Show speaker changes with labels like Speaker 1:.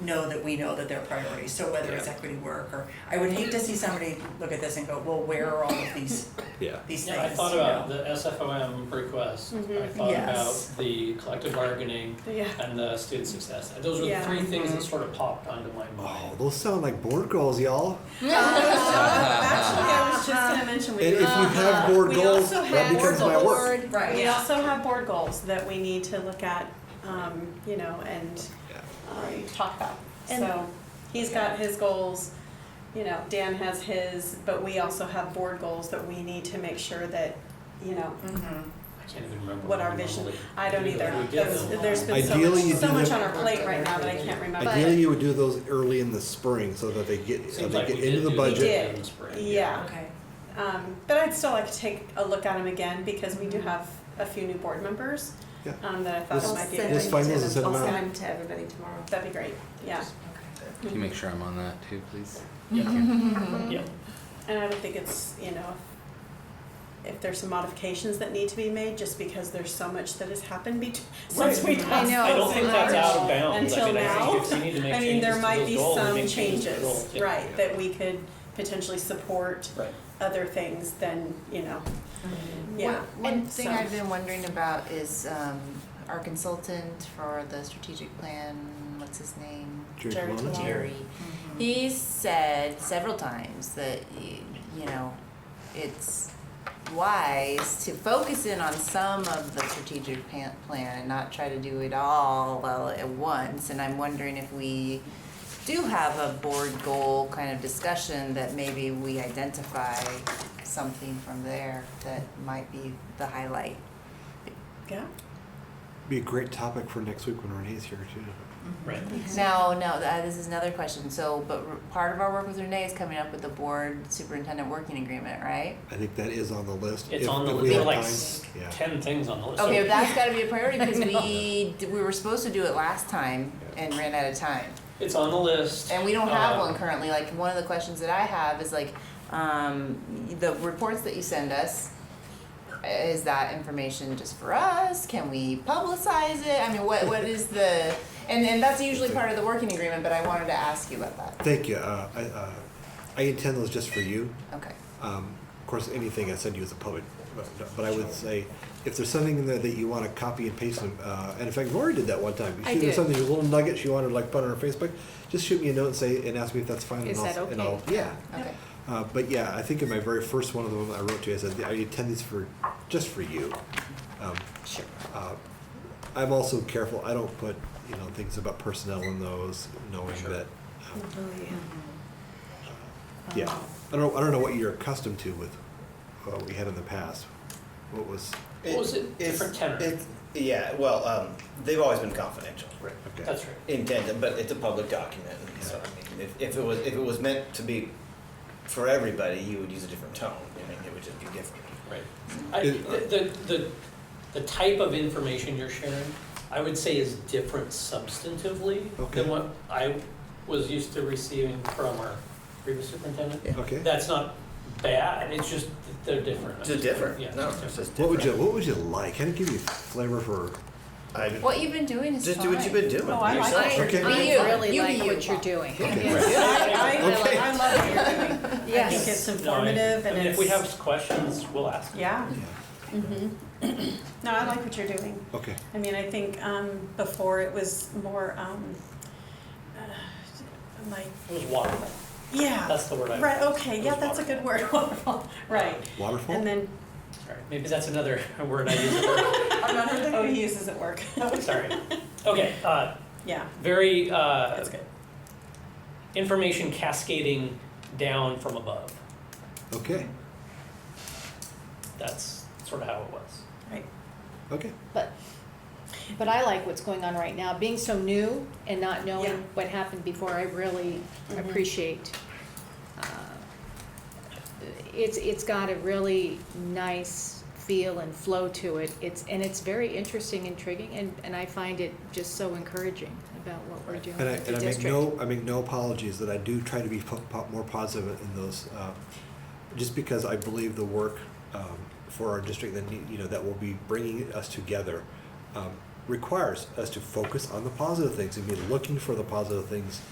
Speaker 1: know that we know that they're priorities, so whether it's
Speaker 2: Yeah.
Speaker 1: equity work or, I would hate to see somebody look at this and go, well, where are all of these,
Speaker 2: Yeah,
Speaker 1: these things?
Speaker 3: Yeah, I thought
Speaker 1: you
Speaker 3: about
Speaker 1: know?
Speaker 3: the SFOM request,
Speaker 4: Mhm.
Speaker 3: I thought
Speaker 1: Yes.
Speaker 3: about the collective bargaining
Speaker 4: Yeah.
Speaker 3: and the student success. Those were the
Speaker 4: Yeah. Mm-hmm.
Speaker 3: three things that sort of popped onto my
Speaker 5: Oh,
Speaker 3: mind.
Speaker 5: those sound like board goals, y'all.
Speaker 4: Actually, I was just gonna mention, we.
Speaker 5: And if you have board
Speaker 4: we
Speaker 5: goals,
Speaker 4: also
Speaker 5: that
Speaker 4: have
Speaker 5: becomes
Speaker 4: board
Speaker 5: my work.
Speaker 4: goals.
Speaker 1: Right.
Speaker 4: We
Speaker 1: Yeah.
Speaker 4: also have board goals that we need to look at, um, you know, and,
Speaker 5: Yeah.
Speaker 4: um, talk about.
Speaker 6: And-
Speaker 4: So, he's got his goals, you know, Dan has his, but we also have board goals that we need to make sure that, you know,
Speaker 1: Mhm.
Speaker 3: I can't even remember.
Speaker 4: What our
Speaker 3: we
Speaker 4: vision-
Speaker 3: normally
Speaker 4: I don't
Speaker 3: do,
Speaker 4: either.
Speaker 3: but we get
Speaker 4: There's,
Speaker 3: them.
Speaker 4: there's been so
Speaker 5: Ideally, you
Speaker 4: much, so
Speaker 5: do
Speaker 4: much
Speaker 5: them-
Speaker 4: on our plate right now that I can't remember.
Speaker 5: Ideally, you would do those early in the spring so that they get, so
Speaker 3: Seems
Speaker 5: they
Speaker 3: like we
Speaker 5: get
Speaker 3: did
Speaker 5: into the
Speaker 3: do
Speaker 5: budget.
Speaker 3: that in the spring,
Speaker 4: Yeah.
Speaker 1: Okay,
Speaker 4: Um, but I'd still like to take a look at them again because we do have a few new board members.
Speaker 5: Yeah.
Speaker 4: Um, that I thought
Speaker 5: This-
Speaker 4: it might be. a
Speaker 5: this
Speaker 4: good-
Speaker 5: finals is set
Speaker 4: I'll
Speaker 5: amount.
Speaker 4: send them to everybody tomorrow. That'd be great, yeah.
Speaker 2: can you make sure I'm on that too, please?
Speaker 4: Mm-hmm.
Speaker 3: Yeah.
Speaker 4: And I don't think it's, you know, if there's some modifications that need to be made, just because there's so much that has happened bet- since we
Speaker 3: Right.
Speaker 4: last.
Speaker 6: I know.
Speaker 3: I don't think that's out of bounds. I
Speaker 4: Until
Speaker 3: mean, I think
Speaker 4: now,
Speaker 3: if you need to make
Speaker 4: I mean,
Speaker 3: changes
Speaker 4: there
Speaker 3: to
Speaker 4: might
Speaker 3: those
Speaker 4: be
Speaker 3: goals,
Speaker 4: some
Speaker 3: make changes to the
Speaker 4: changes,
Speaker 3: goals, yeah.
Speaker 4: right, that we could potentially support
Speaker 3: Right.
Speaker 4: other things than, you know, yeah.
Speaker 6: One- One thing
Speaker 4: so-
Speaker 6: I've been wondering about is um, our consultant for the strategic plan, what's his name?
Speaker 5: Jerry Colonna?
Speaker 6: Colonna. Jerry. He said several times that, y- you know, it's wise to focus in on some of the strategic pan- plan and not try to do it all all at once. And I'm wondering if we do have a board goal kind of discussion that maybe we identify something from there that might be the highlight.
Speaker 4: Yeah.
Speaker 5: Be a great topic for next week when Renee's here too.
Speaker 3: Right.
Speaker 6: Now, no, th- uh, this is another question. So, but r- part of our work with Renee is coming up with the board superintendent working agreement, right?
Speaker 5: I think that is on the list.
Speaker 3: It's
Speaker 5: if-
Speaker 3: on the,
Speaker 5: if we
Speaker 3: there are
Speaker 5: have
Speaker 3: like
Speaker 5: time.
Speaker 3: s-
Speaker 5: Yeah.
Speaker 3: ten things on the list.
Speaker 6: Okay,
Speaker 3: Oh, So-
Speaker 6: but that's got to be a priority because we d- we were supposed to do it last time and ran out of time,
Speaker 3: It's on the list.
Speaker 6: and we don't have
Speaker 3: Um,
Speaker 6: one currently. Like one of the questions that I have is like, um, y- the reports that you send us. uh, Is that information just for us? Can we publicize it? I mean, what what is the and and that's usually part of the working agreement. But I wanted to ask you about that.
Speaker 5: Thank you. Uh, I, uh, I intend those just for you.
Speaker 6: Okay.
Speaker 5: Um, of course, anything I send you is a public, but, but I would say if there's something in there that you want to copy and paste, and, uh, and in fact, Lori did that one time.
Speaker 4: I
Speaker 5: She
Speaker 4: did.
Speaker 5: Something, a little nugget she wanted to like put on her Facebook. Just shoot me a note and say, and ask me if that's fine.
Speaker 4: Is
Speaker 5: and I'll,
Speaker 4: that
Speaker 5: And
Speaker 4: okay?
Speaker 5: I'll, yeah.
Speaker 6: Okay.
Speaker 5: Uh, but yeah, I think in my very first one of them I wrote to you, I said, I intend these for, just for you. Um,
Speaker 6: Sure.
Speaker 5: uh, I'm also careful, I don't put, you know, things about personnel in those, knowing
Speaker 3: Sure.
Speaker 5: that, um, yeah. I don't, I don't know what you're accustomed to with what we had in the past. What was,
Speaker 3: What was it?
Speaker 7: it's-
Speaker 3: Different tenor.
Speaker 7: it's- Yeah, well, um, they've always been confidential. Right.
Speaker 5: okay.
Speaker 3: That's right.
Speaker 7: Intended, but it's a public document, and so, I mean, if, if it was, if it was meant to be for everybody, you would use a different tone, I mean, it would just be different.
Speaker 3: Right. I,
Speaker 5: It-
Speaker 3: the, the, the- the type of information you're sharing, I would say is different substantively
Speaker 5: Okay.
Speaker 3: than what I was used to receiving from our previous superintendent.
Speaker 5: Okay.
Speaker 3: That's not bad, it's just that they're different.
Speaker 7: It's just different,
Speaker 3: Yeah.
Speaker 7: no, it's just different.
Speaker 5: What would you, what would you like? Kind of give you flavor for,
Speaker 7: I,
Speaker 6: What you've been doing is
Speaker 7: just
Speaker 6: fine.
Speaker 7: do what you've been doing,
Speaker 4: Oh, I like
Speaker 7: yourself.
Speaker 5: it. Okay.
Speaker 6: Be you. You be you.
Speaker 8: doing.
Speaker 5: okay.
Speaker 4: I, I,
Speaker 5: Okay.
Speaker 4: I love what you're doing. I think it's
Speaker 8: Yes.
Speaker 3: No, I-
Speaker 4: informative
Speaker 3: I mean,
Speaker 4: and
Speaker 3: If we have
Speaker 4: it's,
Speaker 3: questions, we'll ask.
Speaker 4: yeah,
Speaker 5: Yeah.
Speaker 4: no, I like what you're doing.
Speaker 5: Okay.
Speaker 4: I mean, I think, um, before it was more, um, uh, like,
Speaker 3: It was waterful,
Speaker 4: yeah,
Speaker 3: that's the word I.
Speaker 4: right, okay,
Speaker 3: it
Speaker 4: yeah,
Speaker 3: was
Speaker 4: that's a good word, wonderful, right.
Speaker 5: Waterfall?
Speaker 4: And then,
Speaker 3: Sorry, maybe that's another word I use at work.
Speaker 4: oh, he uses it work,
Speaker 3: sorry. Okay, uh,
Speaker 4: yeah,
Speaker 3: very, uh,
Speaker 4: that's good.
Speaker 3: information cascading down from above.
Speaker 5: Okay,
Speaker 3: That's sort of how it was.
Speaker 5: okay.
Speaker 8: But, but I like what's going on right now. Being so new and not
Speaker 4: Yeah.
Speaker 8: knowing what happened before, I really
Speaker 4: Mhm.
Speaker 8: appreciate. uh, It's, it's got a really nice feel and flow to it. It's, and it's very interesting, intriguing, and, and I find it just so encouraging about what we're doing
Speaker 5: And I,
Speaker 8: with the
Speaker 5: and I
Speaker 8: district.
Speaker 5: make no, I make no apologies that I do try to be po- po- more positive in those, uh, just because I believe the work um, for our district that need, you know that will be bringing us together um, requires us to focus on the positive things and be looking for the positive things